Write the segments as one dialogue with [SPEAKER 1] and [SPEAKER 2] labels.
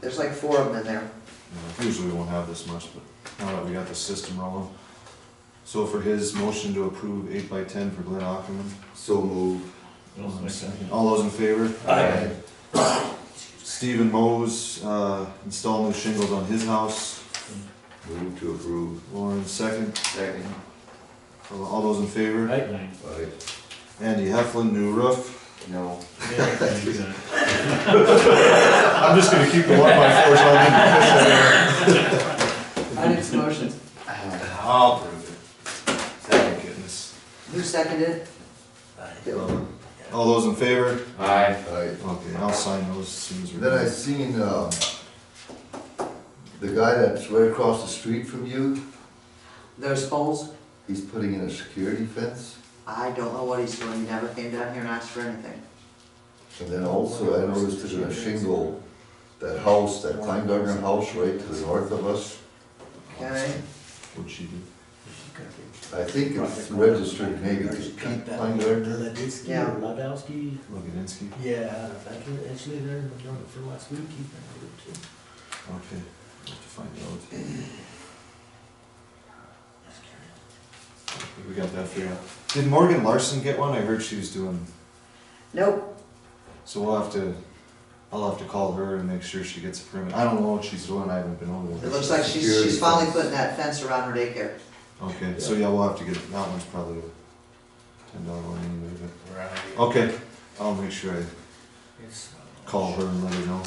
[SPEAKER 1] There's like four of them in there.
[SPEAKER 2] You know, Usually we won't have this much, but now that we got the system rolling. So for his motion to approve eight by ten for Glenn Ackerman.
[SPEAKER 3] So move.
[SPEAKER 2] All those in favor?
[SPEAKER 4] Aye.
[SPEAKER 2] Stephen Mose, uh, install new shingles on his house.
[SPEAKER 3] Move to approve.
[SPEAKER 2] Lauren second.
[SPEAKER 3] Second.
[SPEAKER 2] All those in favor?
[SPEAKER 4] Aye.
[SPEAKER 3] Aye.
[SPEAKER 2] Andy Heflin, new roof.
[SPEAKER 3] No.
[SPEAKER 2] I'm just gonna keep the one by four, so I'll
[SPEAKER 1] I need some motions.
[SPEAKER 2] I'll prove it. Thank goodness.
[SPEAKER 1] Who seconded it?
[SPEAKER 2] All those in favor?
[SPEAKER 4] Aye.
[SPEAKER 3] Aye.
[SPEAKER 2] Okay, I'll sign those as soon as we're
[SPEAKER 3] Then I
[SPEAKER 2] done.
[SPEAKER 3] seen, um, the guy that's right across the street from you,
[SPEAKER 1] Those poles,
[SPEAKER 3] he's putting in a security fence.
[SPEAKER 1] I don't know what he's doing, he never came down here and asked for anything.
[SPEAKER 3] And then also I noticed there's a shingle, that house, that Kleingartner house right to the north of us.
[SPEAKER 1] Okay,
[SPEAKER 2] What'd she do?
[SPEAKER 3] I think it's registered maybe as Pete Kleingartner.
[SPEAKER 5] Ladinsky
[SPEAKER 1] Yeah.
[SPEAKER 5] or Ladowski,
[SPEAKER 2] Logadinsky?
[SPEAKER 5] yeah, that's what- actually there, I know it from last week, he found it too.
[SPEAKER 2] Okay, I have to find out. We got that figured out. Did Morgan Larson get one? I heard she was doing,
[SPEAKER 1] nope,
[SPEAKER 2] so we'll have to, I'll have to call her and make sure she gets a permit. I don't know what she's doing, I haven't been over
[SPEAKER 1] it
[SPEAKER 2] there.
[SPEAKER 1] looks like she's, she's finally putting that fence around her daycare.
[SPEAKER 2] Okay, so yeah, we'll have to get, that one's probably a ten dollar one anyway, but,
[SPEAKER 4] Right.
[SPEAKER 2] okay, I'll make sure I
[SPEAKER 5] uh,
[SPEAKER 2] call her and let her know.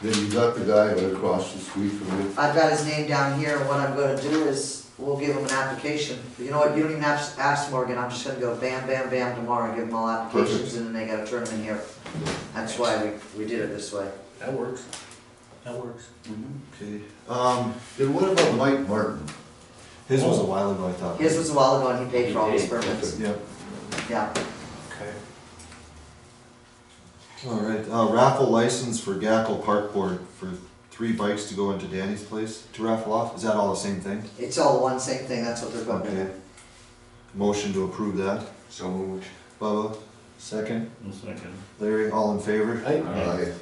[SPEAKER 3] Then you got the guy right across the street from you.
[SPEAKER 1] I've got his name down here, and what I'm gonna do is, we'll give him an application. You know what, you don't even have to ask Morgan, I'm just gonna go bam, bam, bam tomorrow and give them all applications, and then they gotta turn them in here. That's why we, we did it this way.
[SPEAKER 5] That works, that works.
[SPEAKER 2] Mm-hmm. Okay, um,
[SPEAKER 3] Then what about Mike Martin?
[SPEAKER 2] his was a while ago, I thought.
[SPEAKER 1] His was a while ago, and he paid for all his permits,
[SPEAKER 2] Yep,
[SPEAKER 1] yeah.
[SPEAKER 4] Okay.
[SPEAKER 2] all right, uh, raffle license for Gackle Park Board for three bikes to go into Danny's place to raffle off, is that all the same thing?
[SPEAKER 1] It's all one same thing, that's what they're going to
[SPEAKER 2] Okay.
[SPEAKER 1] do.
[SPEAKER 2] Motion to approve that,
[SPEAKER 3] So moved.
[SPEAKER 2] Bubba, second,
[SPEAKER 4] One second.
[SPEAKER 2] Larry, all in favor?
[SPEAKER 3] Aye.
[SPEAKER 2] Okay.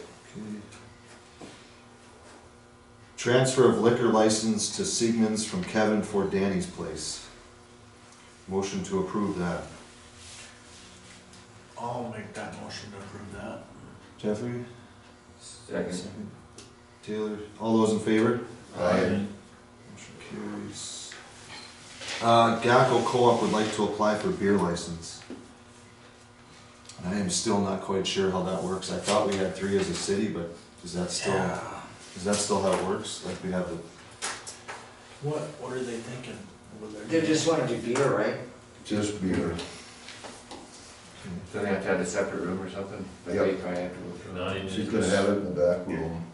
[SPEAKER 2] Transfer of liquor license to Sigmund's from Kevin for Danny's Place. Motion to approve that.
[SPEAKER 4] I'll make that motion to approve that.
[SPEAKER 2] Jeffrey? Second. Taylor, all those in favor?
[SPEAKER 3] Aye.
[SPEAKER 2] Motion carries. Uh, Gackel Co-op would like to apply for beer license. I am still not quite sure how that works. I thought we had three as a city, but is that still,
[SPEAKER 4] Yeah.
[SPEAKER 2] is that still how it works? Like we have the
[SPEAKER 5] What, what are they thinking over there?
[SPEAKER 1] They just wanna do beer, right?
[SPEAKER 3] Just beer.
[SPEAKER 6] So they have to have a separate room or something? Like
[SPEAKER 3] Yep.
[SPEAKER 6] they probably have to go through.
[SPEAKER 7] No, it-
[SPEAKER 3] She's gonna have it in the back room.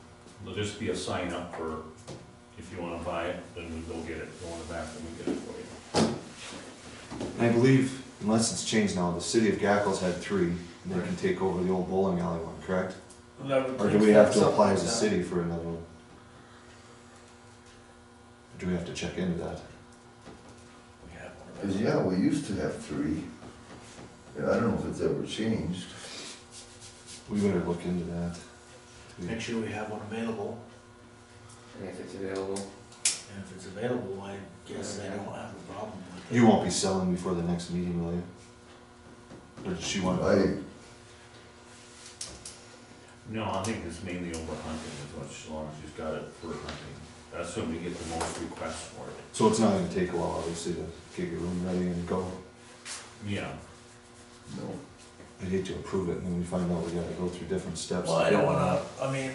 [SPEAKER 7] There'll just be a sign up for, if you wanna buy it, then we'll get it, go in the back and we get it for you.
[SPEAKER 2] And I believe, unless it's changed now, the city of Gackles had three, and they can take over the old bowling alley one, correct? Or do we have to apply as a city for another one? Or Do we have to check into that?
[SPEAKER 4] We have one of
[SPEAKER 3] 'Cause,
[SPEAKER 4] those.
[SPEAKER 3] yeah, we used to have three. And I don't know if it's ever changed.
[SPEAKER 2] We better look into that.
[SPEAKER 5] Make sure we have one available,
[SPEAKER 6] And if it's available.
[SPEAKER 5] and if it's available, I guess they don't have a problem with it.
[SPEAKER 2] You won't be selling before the next meeting, will you? Or does she want?
[SPEAKER 3] I,
[SPEAKER 7] No, I think it's mainly over hunting as much, as long as you've got it for hunting. That's when we get the most requests for it.
[SPEAKER 2] So it's not gonna take a while, obviously, to get your room ready and go.
[SPEAKER 7] Yeah,
[SPEAKER 3] no.
[SPEAKER 2] I'd hate to approve it, and then we find out we gotta go through different steps.
[SPEAKER 5] Well, I don't wanna, I mean,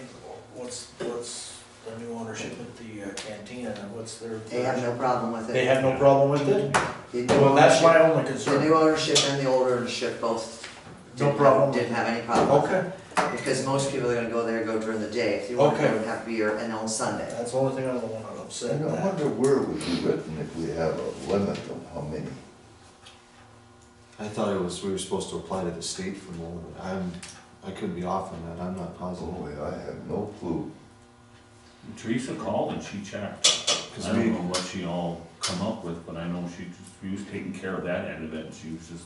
[SPEAKER 5] what's, what's the new ownership at the uh, cantina, and what's their?
[SPEAKER 1] They have no problem with it.
[SPEAKER 5] They have no problem with it?
[SPEAKER 1] The new
[SPEAKER 5] Well, that's my
[SPEAKER 1] ownership-
[SPEAKER 5] only
[SPEAKER 1] The
[SPEAKER 5] concern.
[SPEAKER 1] new ownership and the old ownership both
[SPEAKER 5] No
[SPEAKER 1] didn't
[SPEAKER 5] problem.
[SPEAKER 1] have, didn't have any problem.
[SPEAKER 5] Okay,
[SPEAKER 1] Because most people are gonna go there, go during the day, if you wanna go
[SPEAKER 5] Okay.
[SPEAKER 1] and have beer, and on Sunday.
[SPEAKER 5] that's the only thing I don't wanna
[SPEAKER 3] And
[SPEAKER 5] upset
[SPEAKER 3] I
[SPEAKER 5] that.
[SPEAKER 3] wonder where it would be written if we have a limit of how many.
[SPEAKER 2] I thought it was, we were supposed to apply to the state for more, but I'm, I could be off on that, I'm not positive.
[SPEAKER 5] Oh,
[SPEAKER 3] Boy, I have no clue.
[SPEAKER 7] Teresa called and she checked.
[SPEAKER 2] Cause
[SPEAKER 7] I don't
[SPEAKER 2] we,
[SPEAKER 7] know what she all come up with, but I know she just, she was taking care of that end of it, and she was just